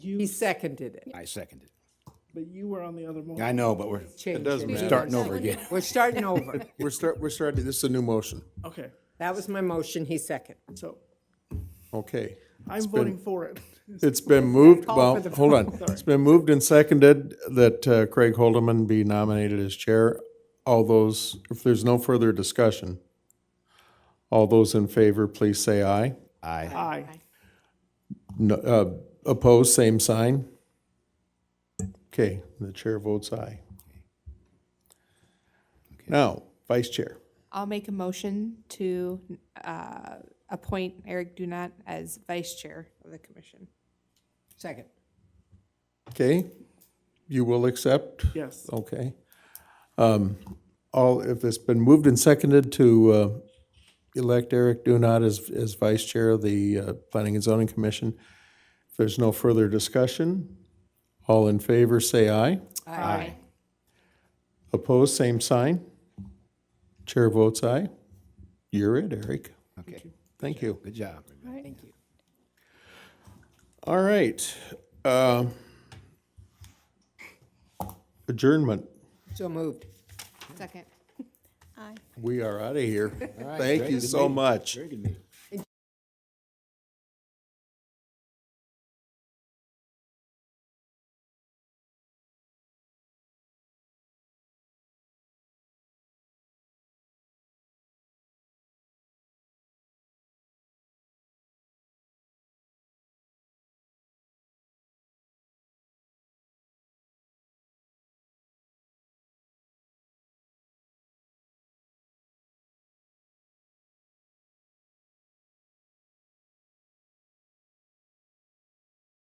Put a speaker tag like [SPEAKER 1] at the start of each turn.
[SPEAKER 1] You,
[SPEAKER 2] He seconded it.
[SPEAKER 3] I seconded
[SPEAKER 1] but you were on the other
[SPEAKER 3] it.
[SPEAKER 1] motion.
[SPEAKER 3] I know, but we're
[SPEAKER 2] Changed
[SPEAKER 4] does
[SPEAKER 2] it.
[SPEAKER 4] matter.
[SPEAKER 3] starting over again.
[SPEAKER 2] We're starting over.
[SPEAKER 4] We're start, we're starting, this is a new motion.
[SPEAKER 1] Okay,
[SPEAKER 2] That was my motion, he seconded.
[SPEAKER 1] so
[SPEAKER 4] Okay.
[SPEAKER 1] I'm voting for it.
[SPEAKER 4] It's been moved,
[SPEAKER 2] Call
[SPEAKER 4] well,
[SPEAKER 2] for the
[SPEAKER 4] hold on. It's been moved and seconded that uh, Craig Holdeman be nominated as chair. All those, if there's no further discussion, all those in favor, please say aye.
[SPEAKER 3] Aye.
[SPEAKER 1] Aye.
[SPEAKER 4] No- uh, Opposed, same sign. Okay, the chair votes aye. Now, vice chair.
[SPEAKER 5] I'll make a motion to uh, appoint Eric Dunat as vice chair of the commission.
[SPEAKER 2] Second.
[SPEAKER 4] Okay, you will accept?
[SPEAKER 1] Yes.
[SPEAKER 4] Okay. Um, All, if it's been moved and seconded to uh, elect Eric Dunat as, as vice chair of the uh, Planning and Zoning Commission, if there's no further discussion, all in favor, say aye.
[SPEAKER 5] Aye.
[SPEAKER 4] Opposed, same sign. Chair votes aye. You're it, Eric.
[SPEAKER 3] Okay,
[SPEAKER 4] Thank you.
[SPEAKER 3] good job.
[SPEAKER 4] All right. uh, Adjournment.
[SPEAKER 2] So moved.
[SPEAKER 5] Second.
[SPEAKER 4] We are out of here. Thank you so much.
[SPEAKER 3] Very good meeting.